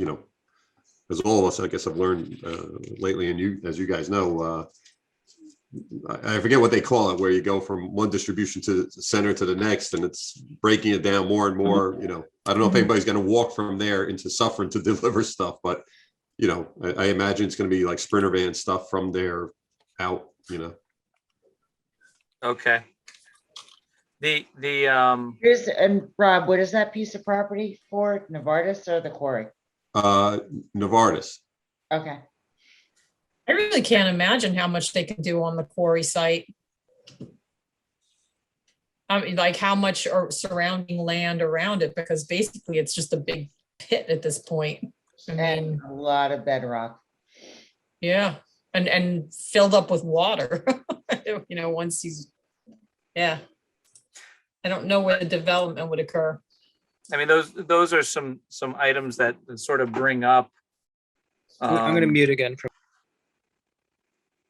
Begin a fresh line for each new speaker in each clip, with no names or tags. you know, as all of us, I guess, have learned uh, lately, and you, as you guys know, uh, I, I forget what they call it, where you go from one distribution to the center to the next, and it's breaking it down more and more. You know, I don't know if
Mhm.
anybody's going to walk from there into suffering to deliver stuff, but you know, I, I imagine it's going to be like sprinter van stuff from there out. You know,
Okay. The, the, um,
Here's, and Rob, what is that piece of property for? Novartis or the quarry?
uh, Novartis.
Okay.
I really can't imagine how much they can do on the quarry site. I mean, like how much or surrounding land around it, because basically it's just a big pit at this point. I
And
mean,
a lot of bedrock.
yeah, and, and filled up with water, you know, once he's, yeah. I don't know where the development would occur.
I mean, those, those are some, some items that sort of bring up.
I'm I'm gonna
um,
mute again from,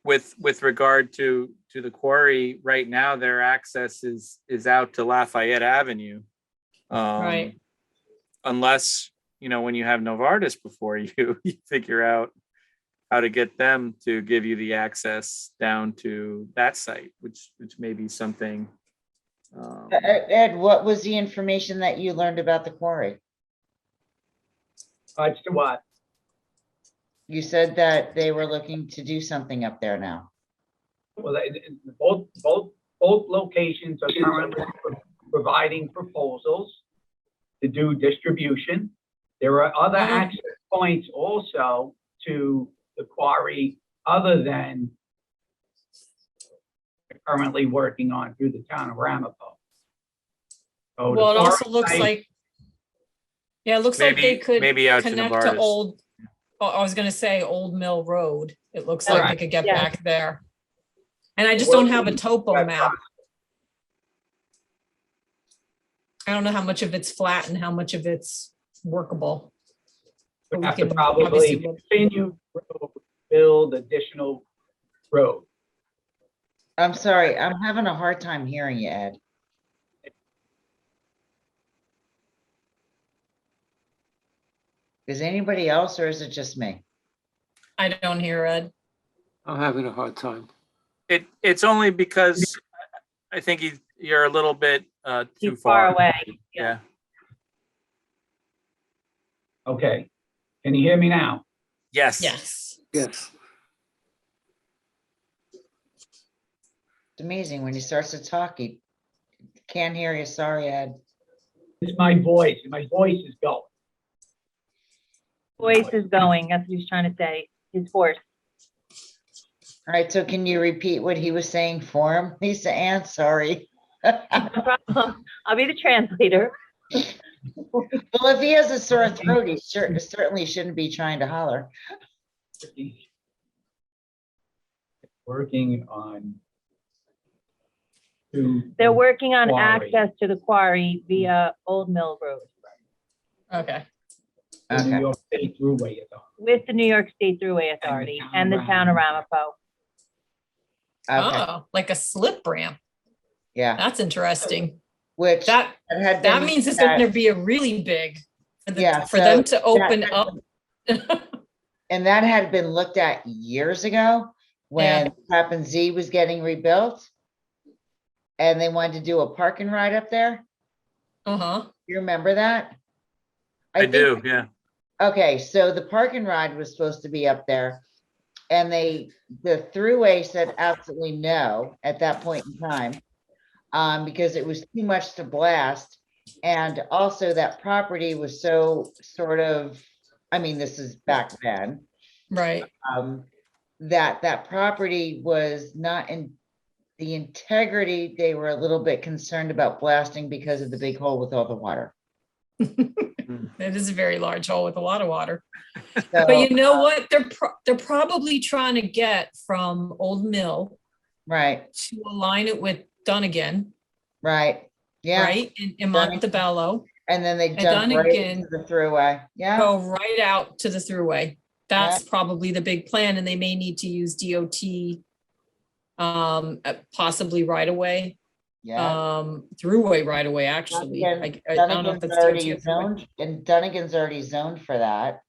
With, with regard to, to the quarry, right now, their access is, is out to Lafayette Avenue. Um,
Right.
Unless, you know, when you have Novartis before you, you figure out how to get them to give you the access down to that site, which, which may be something. um,
Uh, Ed, what was the information that you learned about the quarry?
As
Mm-hmm.
to what?
You said that they were looking to do something up there now.
Well, they- they- both, both, both locations are currently providing proposals to do distribution. There are other
Mhm.
access points also to the quarry other than currently working on through the town of Ramapo. So Oh, the
Well, it also
quarry
looks
site-
like, yeah, it looks like they
Maybe,
could.
maybe out to
connect to
Novartis.
old, oh, I was gonna say Old Mill Road. It looks like they
Right,
could get
yeah.
back there. And I just don't have a topo
Right.
map. I don't know how much of it's flat and how much of it's workable. But
We
we
have to
can obviously
probably
look-
continue to build additional road.
I'm sorry, I'm having a hard time hearing you, Ed. Is anybody else or is it just me?
I don't hear Ed.
I'm having a hard time.
It, it's only because I think you, you're a little bit, uh, too
too far
far.
away.
Yeah,
Okay. Can you hear me now?
yes.
Yes.
Yes.
It's amazing when he starts to talk, he can't hear you. Sorry, Ed.
It's my voice. My voice is going.
Voice is going, that's what he's trying to say, his voice.
All right, so can you repeat what he was saying for him? Lisa Ann, sorry.
No problem. I'll be the translator.
Well, if he has a sore throat, he cer- certainly shouldn't be trying to holler.
Working on. to-
They're working on
Mm. Quarry.
access to the quarry via Old Mill Road
Okay.
the New
Okay.
York State Thruway, you know.
with the New York State Thruway
the
Authority
town
and the
of
town of Ramapo.
Okay,
Oh, like a slip ramp.
yeah,
That's interesting.
which that
That,
had
that
been-
means it's gonna be a really big, for
Yeah,
the- for
so
them to open
had
up.
And that had been looked at years ago when Tappan Z was getting rebuilt. And they wanted to do a parking ride up there.
Uh-huh.
You remember that?
I
think-
do, yeah.
Okay, so the park and ride was supposed to be up there. And they, the throughway said absolutely no at that point in time. Um, because it was too much to blast. And also that property was so sort of, I mean, this is back then.
Right.
Um, that, that property was not in the integrity, they were a little bit concerned about blasting because of the big hole with all the water.
It is a very large hole with a lot of water. But
So, uh,
you know what? They're pro- they're probably trying to get from Old Mill
right,
to align it with Dunnigan,
right, yeah.
right? In, in
Dunnigan.
Montebello,
And then they
And Oh,
jump
done
right
again.
into the throughway. Yeah,
go right out to the thruway. That's probably the big plan, and they may need to use DOT, um, uh, possibly right away,
yeah.
um, throughway right away. Actually, I,
Dunnigan-
I don't know if
Dunnigan's
that's
already
DOT.
zoned- And Dunnigan's already zoned for that.